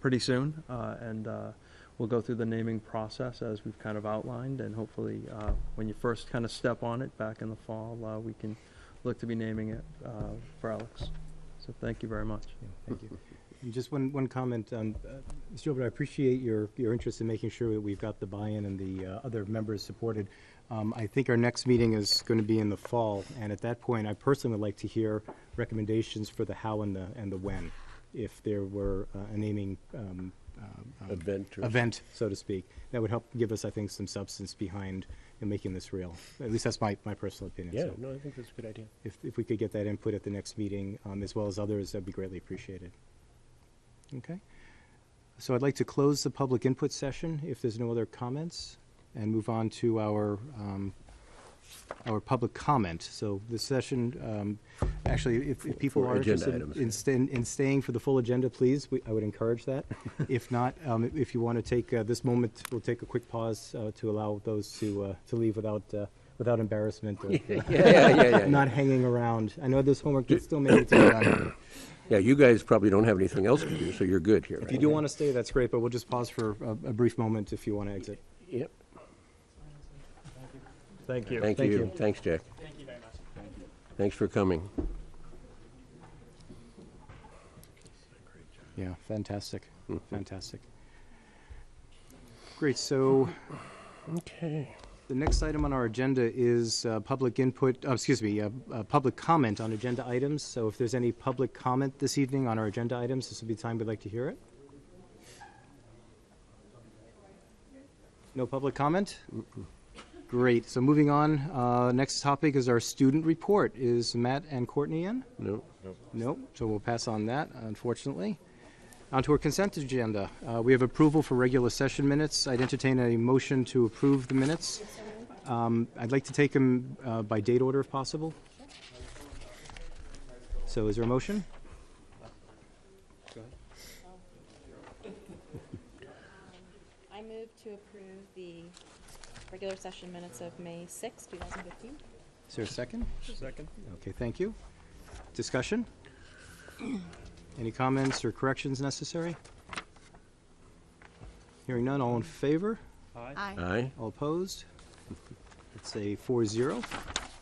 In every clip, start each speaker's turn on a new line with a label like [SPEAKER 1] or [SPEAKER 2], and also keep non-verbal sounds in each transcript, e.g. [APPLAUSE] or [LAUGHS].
[SPEAKER 1] pretty soon, uh, and uh, we'll go through the naming process as we've kind of outlined, and hopefully, uh, when you first kind of step on it back in the fall, uh, we can look to be naming it uh, for Alex. So thank you very much.
[SPEAKER 2] Yeah, Thank you. And just one, one comment on, uh, Mr. Gilbert, I appreciate your, your interest in making sure that we've got the buy-in and the uh, other members supported. Um, I think our next meeting is going to be in the fall, and at that point, I personally would like to hear recommendations for the how and the, and the when, if there were uh, a naming um, um, um,
[SPEAKER 3] Event or-
[SPEAKER 2] Event, so to speak. That would help give us, I think, some substance behind in making this real. At least that's my, my personal opinion.
[SPEAKER 3] Yeah,
[SPEAKER 2] So
[SPEAKER 3] no, I think that's a good idea.
[SPEAKER 2] If, if we could get that input at the next meeting, um, as well as others, that'd be greatly appreciated. Okay? So I'd like to close the public input session, if there's no other comments, and move on to our, um, our public comment. So this session, um, actually, if, if people
[SPEAKER 3] For
[SPEAKER 2] are
[SPEAKER 3] agenda
[SPEAKER 2] interested in-
[SPEAKER 3] items.
[SPEAKER 2] in staying, in staying for the full agenda, please, we- I would encourage that.
[SPEAKER 3] [LAUGHS]
[SPEAKER 2] If not, um, if you want to take uh, this moment, we'll take a quick pause uh, to allow those to, uh, to leave without, uh, without embarrassment or
[SPEAKER 3] [LAUGHS] [LAUGHS] Yeah, yeah, yeah, yeah, yeah.
[SPEAKER 2] not hanging around. I know this homework is still maybe to be
[SPEAKER 3] [COUGHS]
[SPEAKER 2] done.
[SPEAKER 3] Yeah, you guys probably don't have anything else to do, so you're good here.
[SPEAKER 2] If you do want to stay, that's great, but we'll just pause for a, a brief moment if you want to exit.
[SPEAKER 3] Yep.
[SPEAKER 1] Thank you.
[SPEAKER 3] Thank
[SPEAKER 2] Thank
[SPEAKER 3] you.
[SPEAKER 2] you.
[SPEAKER 3] Thanks, Jack. Thank you very much. Thanks for coming.
[SPEAKER 2] Yeah, fantastic,
[SPEAKER 3] Hmm.
[SPEAKER 2] fantastic. Great, so
[SPEAKER 3] Okay.
[SPEAKER 2] the next item on our agenda is uh, public input, uh, excuse me, uh, uh, public comment on agenda items. So if there's any public comment this evening on our agenda items, this would be the time we'd like to hear it. No public comment? Great, so moving on, uh, next topic is our student report. Is Matt and Courtney in?
[SPEAKER 3] No,
[SPEAKER 2] Nope, so we'll pass on that, unfortunately. Onto our consent agenda. Uh, We have approval for regular session minutes. I'd entertain a motion to approve the minutes. Um, I'd like to take them uh, by date order if possible. So is there a motion?
[SPEAKER 4] I move to approve the regular session minutes of May 6, 2015.
[SPEAKER 2] Is there a second?
[SPEAKER 1] Second.
[SPEAKER 2] Okay, thank you. Discussion? Any comments or corrections necessary? Hearing none, all in favor?
[SPEAKER 3] aye.
[SPEAKER 2] All opposed? It's a four zero.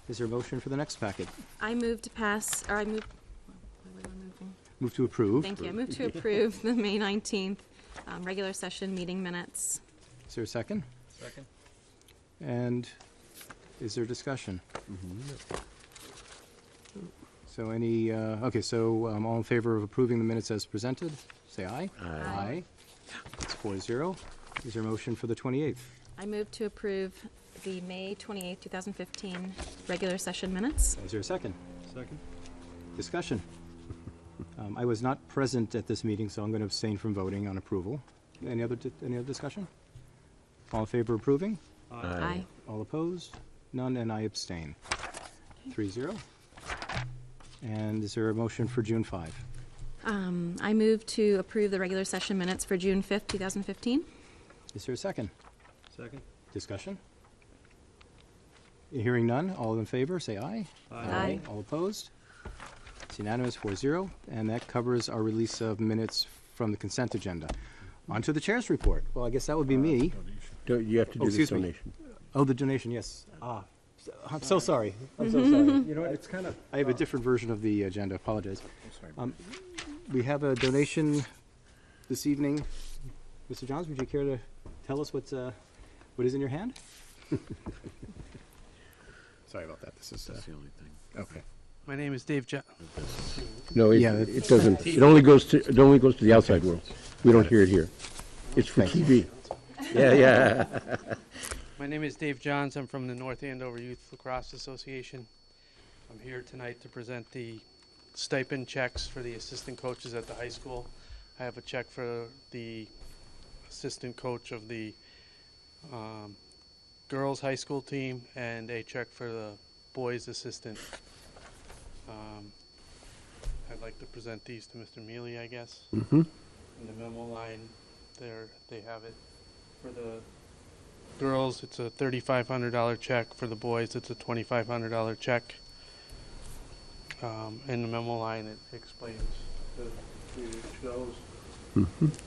[SPEAKER 2] Is there a motion for the next packet?
[SPEAKER 4] I move to pass, or I move, why was I moving?
[SPEAKER 2] Move to approve.
[SPEAKER 4] thank you, I move to approve the May 19th um, regular session meeting minutes.
[SPEAKER 2] Is there a second?
[SPEAKER 1] Second.
[SPEAKER 2] And is there discussion? So any, uh, okay, so um, all in favor of approving the minutes as presented, say aye. Aye. It's four zero. Is there a motion for the 28th?
[SPEAKER 4] I move to approve the May 28, 2015 regular session minutes.
[SPEAKER 2] Is there a second?
[SPEAKER 1] Second.
[SPEAKER 2] Discussion. Um, I was not present at this meeting, so I'm going to abstain from voting on approval. Any other, di- any other discussion? All in favor of approving?
[SPEAKER 4] Aye.
[SPEAKER 2] All opposed? None, and I abstain. Three zero. And is there a motion for June 5?
[SPEAKER 4] Um, I move to approve the regular session minutes for June 5, 2015.
[SPEAKER 2] Is there a second?
[SPEAKER 1] Second.
[SPEAKER 2] Discussion? Hearing none, all in favor, say aye.
[SPEAKER 4] Aye.
[SPEAKER 2] All opposed? It's unanimous, four zero, and that covers our release of minutes from the consent agenda. On to the chair's report. Well, I guess that would
[SPEAKER 1] Uh,
[SPEAKER 2] be me.
[SPEAKER 3] Do- You have to
[SPEAKER 2] Oh,
[SPEAKER 3] do the
[SPEAKER 2] excuse me.
[SPEAKER 3] donation.
[SPEAKER 2] Oh, the donation, yes. Ah, so- I'm so sorry. I'm so sorry.
[SPEAKER 1] Mm-hmm. You know, it's kind of. uh,
[SPEAKER 2] I have a different version of the agenda, apologize. Um, We have a donation this evening. Mr. Johns, would you care to tell us what's, uh, what is in your hand?
[SPEAKER 5] Sorry about that. This is. That's the only thing. Okay.
[SPEAKER 6] My name is Dave Jo-
[SPEAKER 3] No, it,
[SPEAKER 2] Yeah, that's-
[SPEAKER 3] it doesn't, it only goes to, it only goes to the outside world. We don't hear it here. It's for TV. Yeah, yeah.
[SPEAKER 6] My name is Dave Johns. I'm from the North Andover Youth Lacrosse Association. I'm here tonight to present the stipend checks for the assistant coaches at the high school. I have a check for the assistant coach of the um, girls' high school team and a check for the boys' assistant. Um, I'd like to present these to Mr. Mealy, I guess.
[SPEAKER 3] Mm-hmm.
[SPEAKER 6] in the memo line there they have it for the girls it's a $3500 check for the boys it's a $2500 check um, in the memo line it explains the, the goes